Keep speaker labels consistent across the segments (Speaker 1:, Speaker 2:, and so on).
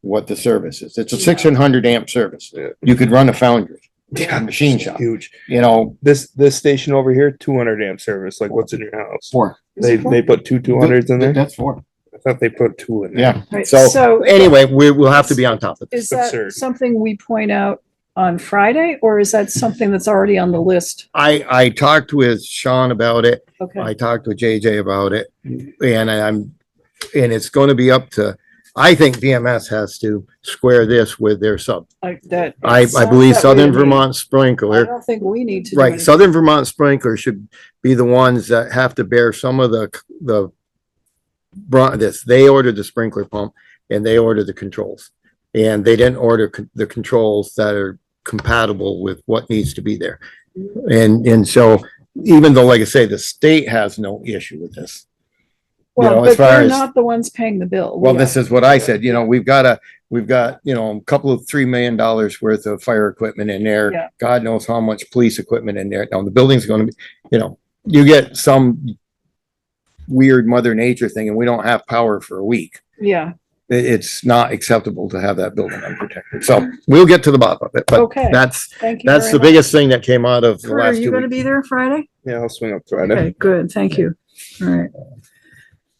Speaker 1: what the service is. It's a
Speaker 2: Yeah.
Speaker 1: six hundred amp service.
Speaker 3: Yeah.
Speaker 1: You could run a foundry, a machine shop,
Speaker 4: Huge.
Speaker 1: you know,
Speaker 4: This, this station over here, two hundred amp service, like what's in your house?
Speaker 1: for.
Speaker 4: They, they put two two hundreds in there?
Speaker 1: That's for,
Speaker 4: I thought they put two in there.
Speaker 1: yeah.
Speaker 2: Right,
Speaker 1: So
Speaker 2: so-
Speaker 1: anyway, we will have to be on top of it.
Speaker 2: Is that
Speaker 4: absurd.
Speaker 2: something we point out on Friday or is that something that's already on the list?
Speaker 1: I, I talked with Sean about it.
Speaker 2: Okay,
Speaker 1: I talked with JJ about it and I'm, and it's going to be up to, I think VMS has to square this with their sub.
Speaker 2: like that.
Speaker 1: I, I
Speaker 2: sounds
Speaker 1: believe
Speaker 2: that way Oh. to
Speaker 1: Southern
Speaker 2: me.
Speaker 1: Vermont
Speaker 2: I
Speaker 1: Sprinkler,
Speaker 2: don't think we need to. do
Speaker 1: right,
Speaker 2: anything.
Speaker 1: Southern Vermont Sprinkler should be the ones that have to bear some of the, the brunt, this, they ordered the sprinkler pump and they ordered the controls. And they didn't order con- the controls that are compatible with what needs to be there. And, and so even though, like I say, the state has no issue with this. you know,
Speaker 2: Well,
Speaker 1: as
Speaker 2: but
Speaker 1: far
Speaker 2: they're
Speaker 1: as-
Speaker 2: not the ones paying the bill.
Speaker 1: Well,
Speaker 2: We
Speaker 1: this is what I said, you know, we've got a, we've got, you know, a couple of three million dollars worth of fire equipment in
Speaker 2: Yeah.
Speaker 1: there. God knows how much police equipment in there. Now, the building's gonna be, you know, you get some weird mother nature thing and we don't have power for a week.
Speaker 2: are. Yeah,
Speaker 1: I- it's not acceptable to have that building unprotected. So we'll get to the bottom of it, but
Speaker 2: okay,
Speaker 1: that's,
Speaker 2: thank you.
Speaker 1: that's
Speaker 2: very
Speaker 1: the
Speaker 2: much.
Speaker 1: biggest thing that came out of the
Speaker 2: Kurt, Are
Speaker 1: last
Speaker 2: you
Speaker 1: two
Speaker 2: gonna
Speaker 1: weeks.
Speaker 2: be there Friday?
Speaker 4: Yeah, I'll swing up Friday.
Speaker 2: Okay, good, thank you. All right,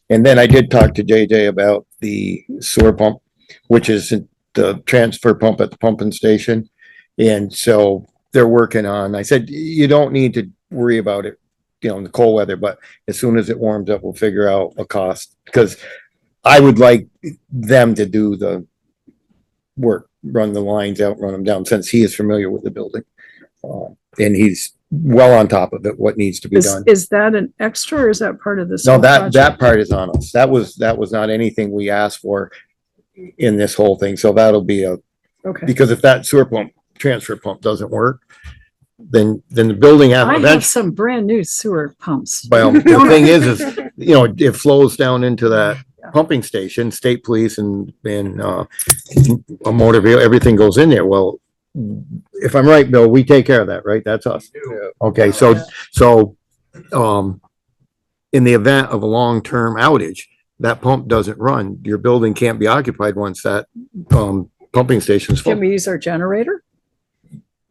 Speaker 1: And then I did talk to JJ about the sewer pump, which is the transfer pump at the pumping station. And so they're working on, I said, you don't need to worry about it, you know, in the cold weather, but as soon as it warms up, we'll figure out a cost. Because I would like them to do the work, run the lines out, run them down, since he is familiar with the building. Uh, And he's well on top of it, what needs to be
Speaker 2: is,
Speaker 1: done.
Speaker 2: is that an extra or is that part of this?
Speaker 1: No,
Speaker 2: whole
Speaker 1: that, that
Speaker 2: project?
Speaker 1: part is on us. That was, that was not anything we asked for in this whole thing. So that'll be a,
Speaker 2: Okay,
Speaker 1: because if that sewer pump, transfer pump doesn't work, then, then the building, out-
Speaker 5: I have
Speaker 1: eventually,
Speaker 5: some brand new sewer pumps.
Speaker 1: well, the thing is, is, you know, it flows down into that pumping station, state police and, and, uh, a motor vehicle, everything goes in there. Well, if I'm right, Bill, we take care of that, right? That's us. Okay, so, so, um, in the event of a long-term outage, that pump doesn't run, your building can't be occupied once that, um, pumping station's
Speaker 2: can
Speaker 1: full.
Speaker 2: we use our generator?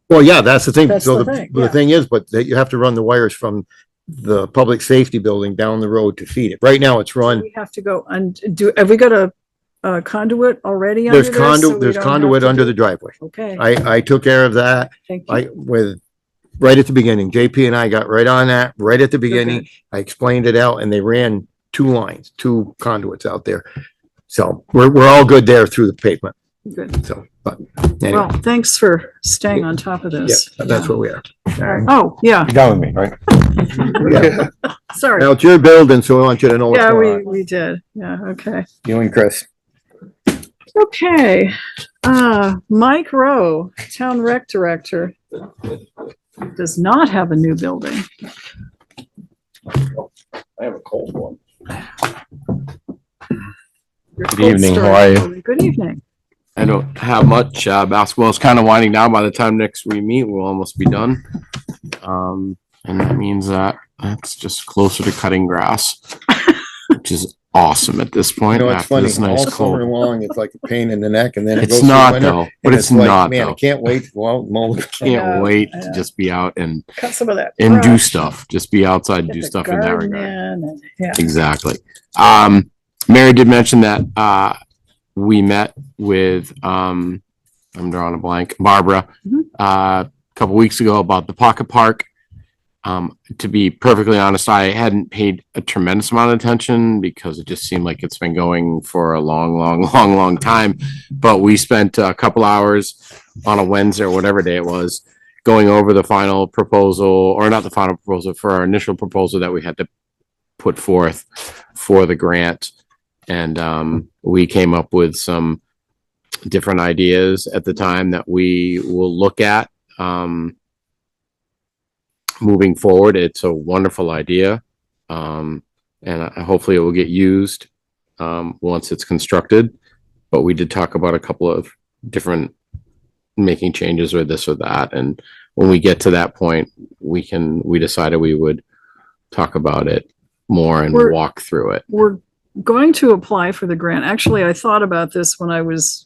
Speaker 1: Well, yeah, that's the thing.
Speaker 2: That's
Speaker 1: So
Speaker 2: the
Speaker 1: the,
Speaker 2: thing,
Speaker 1: the
Speaker 2: yeah.
Speaker 1: thing is, but that you have to run the wires from the public safety building down the road to feed it. Right now, it's
Speaker 2: Do
Speaker 1: run,
Speaker 2: We have to go and do, have we got a a conduit already under
Speaker 1: there's
Speaker 2: this? so
Speaker 1: conduit,
Speaker 2: we
Speaker 1: there's
Speaker 2: don't have
Speaker 1: conduit
Speaker 2: to
Speaker 1: under
Speaker 2: do-
Speaker 1: the driveway.
Speaker 2: Okay,
Speaker 1: I, I took care of that.
Speaker 2: thank you.
Speaker 1: I, with, right at the beginning, JP and I got right on that, right at the beginning. I explained it out and they ran two lines, two conduits out there. So we're, we're all good there through the pavement.
Speaker 2: Good.
Speaker 1: So, but
Speaker 2: Well,
Speaker 1: anyway,
Speaker 2: thanks for staying on top of
Speaker 1: yeah,
Speaker 2: this.
Speaker 1: that's what we are.
Speaker 2: Oh, yeah,
Speaker 3: You're done with me, right?
Speaker 1: Yeah.
Speaker 2: sorry.
Speaker 1: Now it's your building, so I want you to know what's
Speaker 2: Yeah, we,
Speaker 1: going on.
Speaker 2: we did. Yeah, okay.
Speaker 1: You and Chris.
Speaker 2: Okay, uh, Mike Rowe, Town Rec Director, does not have a new building.
Speaker 6: I have a cold one.
Speaker 2: Your
Speaker 6: Good
Speaker 2: cold
Speaker 6: evening, how
Speaker 2: start.
Speaker 6: are
Speaker 2: Good evening.
Speaker 6: I don't have much. Uh, basketball is kind of winding down. By the time next we meet, we'll almost be done. Um, and that means that that's just closer to cutting grass, which is awesome at this
Speaker 1: You
Speaker 6: point.
Speaker 1: know, it's
Speaker 6: after
Speaker 1: funny,
Speaker 6: this
Speaker 1: all
Speaker 6: nice
Speaker 1: summer
Speaker 6: cold.
Speaker 1: long, it's like a pain in the neck and then it goes
Speaker 6: It's
Speaker 1: through
Speaker 6: not
Speaker 1: winter.
Speaker 6: though, but
Speaker 1: and
Speaker 6: it's
Speaker 1: like,
Speaker 6: not
Speaker 1: Man, I
Speaker 6: though.
Speaker 1: can't wait to go out and mow. the-
Speaker 2: Yeah,
Speaker 6: Can't wait
Speaker 2: yeah.
Speaker 6: to just be out and,
Speaker 2: Cut some of that.
Speaker 6: and do
Speaker 2: brush,
Speaker 6: stuff, just be outside and
Speaker 2: get
Speaker 6: do
Speaker 2: the
Speaker 6: stuff in that
Speaker 2: garden
Speaker 6: regard.
Speaker 2: in and- Yeah,
Speaker 6: Exactly. Um, Mary did mention that, uh, we met with, um, I'm drawing a blank, Barbara,
Speaker 2: Mhm.
Speaker 6: uh, a couple weeks ago about the pocket park. Um, to be perfectly honest, I hadn't paid a tremendous amount of attention because it just seemed like it's been going for a long, long, long, long time. But we spent a couple hours on a Wednesday or whatever day it was, going over the final proposal, or not the final proposal, for our initial proposal that we had to put forth for the grant. And um, we came up with some different ideas at the time that we will look at. Um, moving forward, it's a wonderful idea. Um, and I- hopefully it will get used um, once it's constructed. But we did talk about a couple of different making changes or this or that. And when we get to that point, we can, we decided we would talk about it more and
Speaker 2: We're-
Speaker 6: walk through it.
Speaker 2: we're going to apply for the grant. Actually, I thought about this when I was